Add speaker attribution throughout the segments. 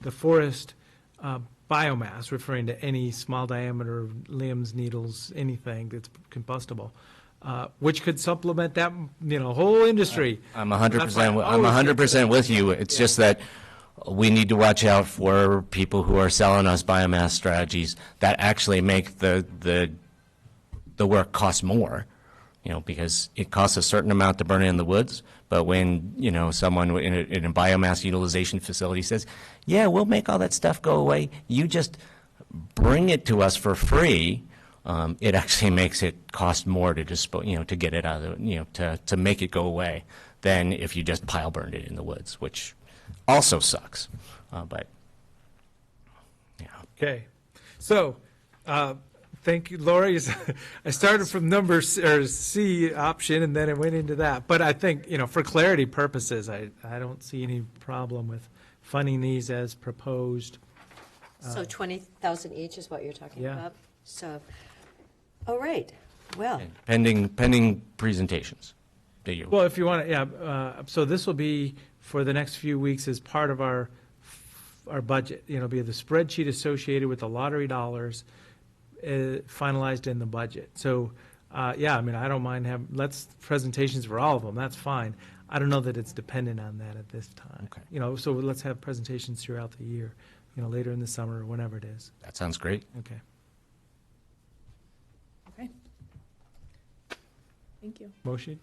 Speaker 1: the forest uh, biomass, referring to any small diameter limbs, needles, anything that's combustible, uh, which could supplement that, you know, whole industry.
Speaker 2: I'm 100%,
Speaker 1: That's why
Speaker 2: wi-
Speaker 1: I
Speaker 2: I'm
Speaker 1: always get
Speaker 2: 100% with you. It's just that we need to watch out for people who are selling us biomass strategies that actually make the, the, the work cost more, you know, because it costs a certain amount to burn it in the woods, but when, you know, someone in a, in a biomass utilization facility says, yeah, we'll make all that stuff go away, you just bring it to us for free, um, it actually makes it cost more to dispose, you know, to get it out of, the you know, to, to make it go away than if you just pile burned it in the woods, which also sucks. Uh, but, yeah.
Speaker 1: Okay, so, uh, thank you, Lori. I started from number, C- or C option, and then I went into that. But I think, you know, for clarity purposes, I, I don't see any problem with funding these as proposed.
Speaker 3: So 20,000 each is what you're talking
Speaker 1: Uh, Yeah.
Speaker 3: about? So, all right, well,
Speaker 2: Pending, pending presentations that you.
Speaker 1: Well, if you want to, yeah, uh, so this will be for the next few weeks as part of our, our budget. You know, be the spreadsheet associated with the lottery dollars uh, finalized in the budget. So, uh, yeah, I mean, I don't mind having, let's, presentations for all of them, that's fine. I don't know that it's dependent on that at this time.
Speaker 2: Okay.
Speaker 1: You know, so let's have presentations throughout the year, you know, later in the summer or whenever it is.
Speaker 2: That sounds great.
Speaker 1: Okay.
Speaker 4: Okay. Thank you.
Speaker 1: Motion?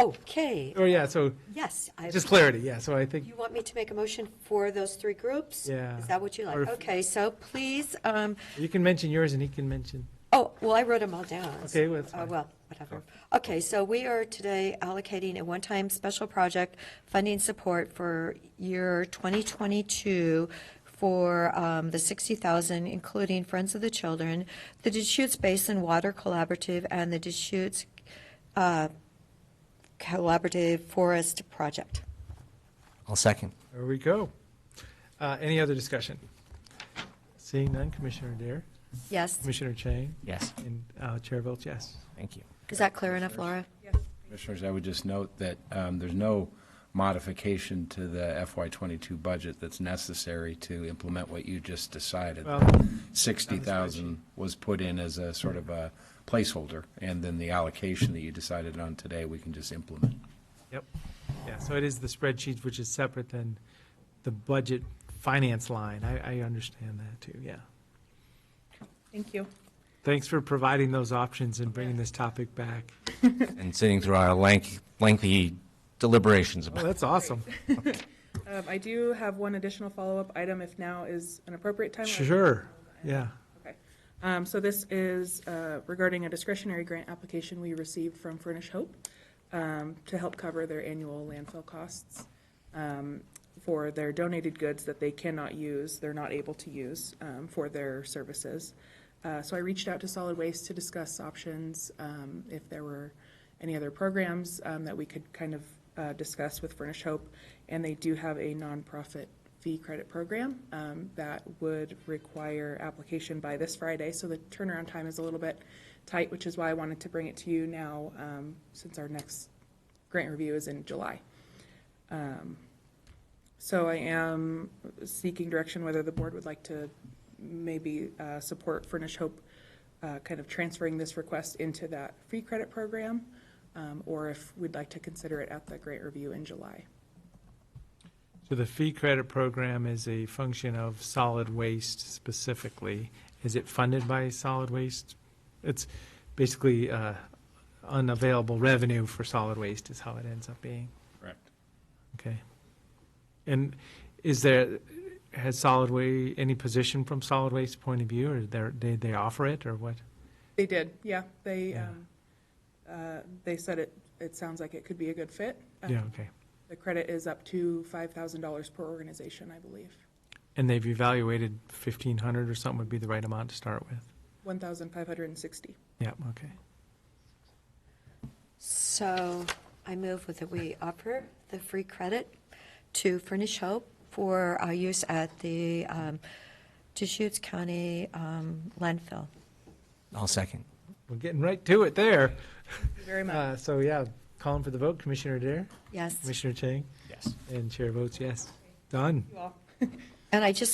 Speaker 3: okay,
Speaker 1: Oh, yeah, so,
Speaker 3: yes. I-
Speaker 1: just clarity, yeah, so I think,
Speaker 3: You want me to make a motion for those three groups?
Speaker 1: Yeah.
Speaker 3: Is that what you
Speaker 1: Or
Speaker 3: like?
Speaker 1: if-
Speaker 3: Okay, so please, um,
Speaker 1: you can mention yours and he can mention,
Speaker 3: Oh, well, I wrote them all down.
Speaker 1: Okay, well, that's
Speaker 3: Uh,
Speaker 1: fine.
Speaker 3: Well, whatever. Okay, so we are today allocating a one-time special project funding support for year 2022 for um, the 60,000, including Friends of the Children, the Deschutes Basin Water Collaborative, and the Deschutes uh, Collaborative Forest Project.
Speaker 2: I'll second.
Speaker 1: there we go. Uh, Any other discussion? Seeing none, Commissioner Dare,
Speaker 3: Yes,
Speaker 1: Commissioner Chang,
Speaker 2: Yes,
Speaker 1: and uh, Chair votes yes.
Speaker 2: thank you.
Speaker 3: is that clear enough, Laura?
Speaker 5: Commissioners, I would just note that um, there's no modification to the FY '22 budget that's necessary to implement what you just decided.
Speaker 1: Well,
Speaker 5: 60,000 was put in as a sort of a placeholder, and then the allocation that you decided on today, we can just implement.
Speaker 1: Yep, yeah, so it is the spreadsheet, which is separate than the budget finance line. I, I understand that too, yeah.
Speaker 4: Thank you.
Speaker 1: Thanks for providing those options and bringing this topic back.
Speaker 2: And sitting through our lank- lengthy deliberations
Speaker 1: Well,
Speaker 2: about
Speaker 1: Oh, that's awesome.
Speaker 4: Um, I do have one additional follow-up item if now is an appropriate time.
Speaker 1: Sure, yeah.
Speaker 4: Okay. Um, so this is, uh, regarding a discretionary grant application we received from Furnish Hope, um, to help cover their annual landfill costs, um, for their donated goods that they cannot use, they're not able to use, um, for their services. Uh, so I reached out to Solid Waste to discuss options, um, if there were any other programs, um, that we could kind of, uh, discuss with Furnish Hope. And they do have a nonprofit fee credit program um, that would require application by this Friday. So the turnaround time is a little bit tight, which is why I wanted to bring it to you now, um, since our next grant review is in July. Um, So I am seeking direction whether the board would like to maybe uh, support Furnish Hope, uh, kind of transferring this request into that free credit program, um, or if we'd like to consider it at the grant review in July.
Speaker 1: So the fee credit program is a function of solid waste specifically. Is it funded by solid waste? It's basically uh, unavailable revenue for solid waste is how it ends up being,
Speaker 5: Correct.
Speaker 1: okay? And is there, has solid wa, any position from solid waste point of view, or they're- they, they offer it, or what?
Speaker 4: They did, yeah. They,
Speaker 1: Yeah.
Speaker 4: um, uh, they said it, it sounds like it could be a good fit. Um,
Speaker 1: Yeah, okay.
Speaker 4: The credit is up to $5,000 per organization, I believe.
Speaker 1: And they've evaluated 1,500 or something would be the right amount to start with?
Speaker 4: 1,560.
Speaker 1: Yeah, okay.
Speaker 3: So I move with that we offer the free credit to Furnish Hope for our use at the um, Deschutes County um, landfill.
Speaker 2: I'll second.
Speaker 1: We're getting right to it there.
Speaker 4: Thank you Very much.
Speaker 1: Uh, So, yeah, calling for the vote, Commissioner Dare,
Speaker 3: Yes,
Speaker 1: Commissioner Chang,
Speaker 2: Yes.
Speaker 1: and Chair votes yes. Done.
Speaker 4: You all.
Speaker 3: And I just